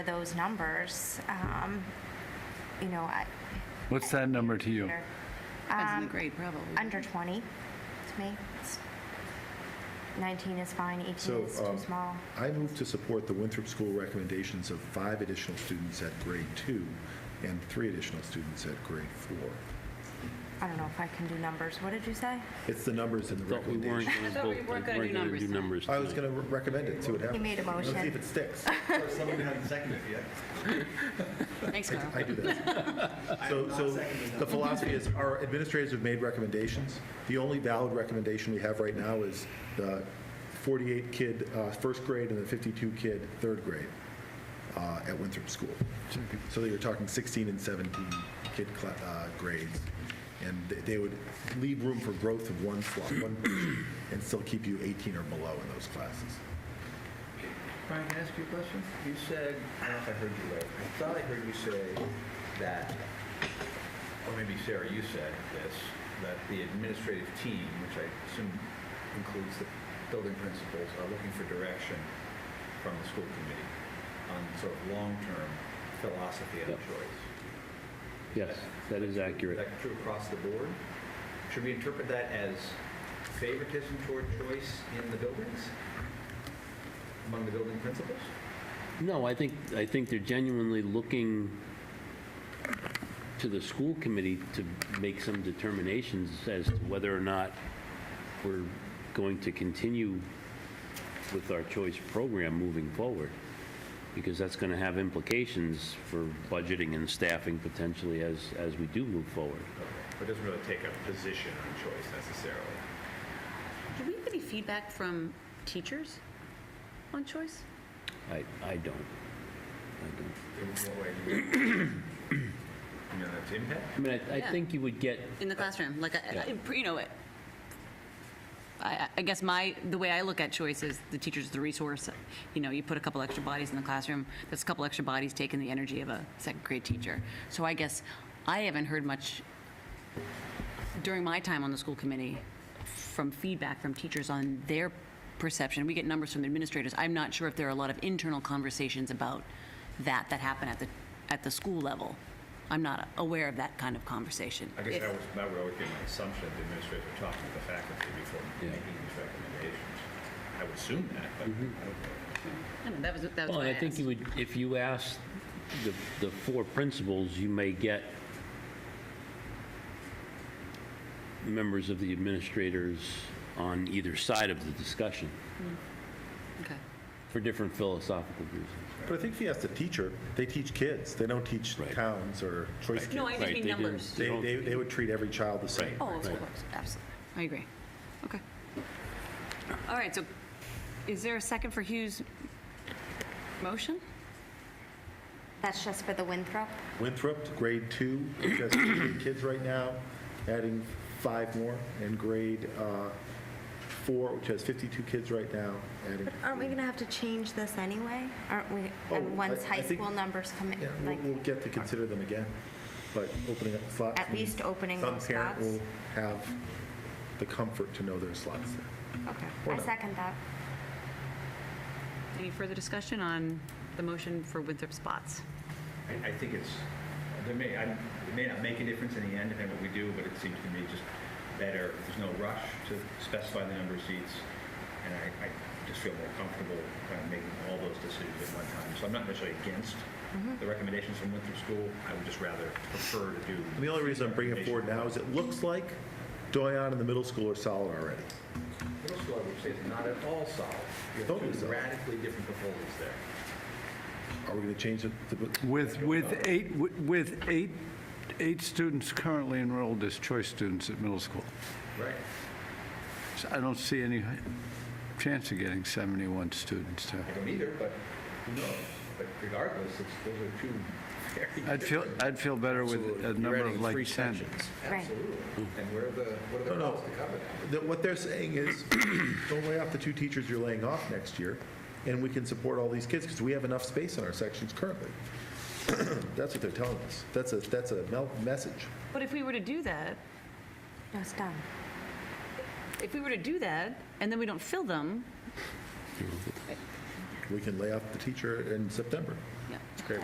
those numbers, um, you know, I- What's that number to you? they're Depends on the grade, probably. under 20 to me. It's- 19 is fine, 18 So, is too um, small. I move to support the Winthrop School recommendations of five additional students at grade two and three additional students at grade four. I don't know if I can do numbers. What did you say? It's the numbers in the Thought we weren't recommendation. gonna thought we vote- weren't gonna do gonna numbers tonight. I was going to recommend it, see what happens. made a Let's see motion. if it sticks. Somebody hasn't seconded it yet. Thanks, Carl. I do that. So, so the philosophy is our administrators have made recommendations. The only valid recommendation we have right now is the 48 kid, uh, first grade and the 52 kid, third grade uh, at Winthrop School. So you're talking 16 and 17 kid cla- uh, grades. And they- they would leave room for growth of one slot, one person, and still keep you 18 or below in those classes. Brian, can I ask you a question? You said, I don't know if I heard you right, I thought I heard you say that, or maybe Sarah, you said this, that the administrative team, which I assume includes the building principals, are looking for direction from the school committee on sort of long-term philosophy and Yep. choice. Yes, that is Is accurate. that true across the board? Should we interpret that as favoritism toward choice in the buildings? Among the building principals? No, I think, I think they're genuinely looking to the school committee to make some determinations as to whether or not we're going to continue with our choice program moving forward, because that's going to have implications for budgeting and staffing potentially as, as we do move forward. It doesn't really take a position on choice necessarily. Do we have any feedback from teachers on choice? I, I don't. I don't. In what way do you, you know, that's impact? I mean, I, I Yeah. think you would get In the classroom, like, I- Yeah. I- I- you know, I- I, I guess my, the way I look at choice is the teacher's the resource. You know, you put a couple extra bodies in the classroom, that's a couple extra bodies taking the energy of a second grade teacher. So I guess I haven't heard much during my time on the school committee from feedback from teachers on their perception. We get numbers from the administrators. I'm not sure if there are a lot of internal conversations about that that happen at the, at the school level. I'm not aware of that kind of conversation. I guess If- that was, that would always be my assumption, that the administrators are talking to the faculty before Yeah. making these recommendations. I would assume that, but I don't know. I know, That was, that was Well, why I think asked. you would, if you ask the, the four principals, you may get members of the administrators on either side of the discussion Okay. for different philosophical reasons. But I think if you ask the teacher, they teach kids. They don't teach Right. towns or choice kids. No, I just Right, mean they didn't- numbers. They, they, they would treat every child the same. Oh, of Right. course, absolutely. I agree. Okay. All right, so is there a second for Hugh's motion? That's just for the Winthrop? Winthrop, grade two, which has three kids right now, adding five more, and grade uh, four, which has 52 kids right now, adding. Aren't we going to have to change this anyway? Aren't we, Oh, and once I- high I think- school numbers come Yeah, in, we'll, like, we'll get to consider them again, but opening up slots. At means least opening those Some parent slots. will have the comfort to know there's slots there. okay. Or I no. second that. Any further discussion on the motion for Winthrop spots? I, I think it's, there may, I, it may not make a difference in the end depending on what we do, but it seems to me just better, there's no rush to specify the number of seats. And I, I just feel more comfortable kind of making all those decisions at one time. So I'm not necessarily against the recommendations from Winthrop School. I would just rather prefer to do. And the only reason I'm bringing it forward now is it looks like Doyon and the middle school are solid already. Middle school, I would say, is not at all solid. You Totally have two solid. radically different proposals there. Are we going to change it? to- With, with eight, with eight, eight students currently enrolled as choice students at middle school. Right. So I don't see any chance of getting 71 students to. I don't either, but who knows? But regardless, it's, those are two very I'd feel, different- I'd feel better with a number of like 10. Right. Absolutely. And where are the, what are No, the no. costs to cover that? that what they're saying is, don't lay off the two teachers you're laying off next year, and we can support all these kids, because we have enough space in our sections currently. That's what they're telling us. That's a, that's a mel- message. But if we were to do that, No, it's done. if we were to do that, and then we don't fill them, We can lay off the teacher in September. yeah. Great.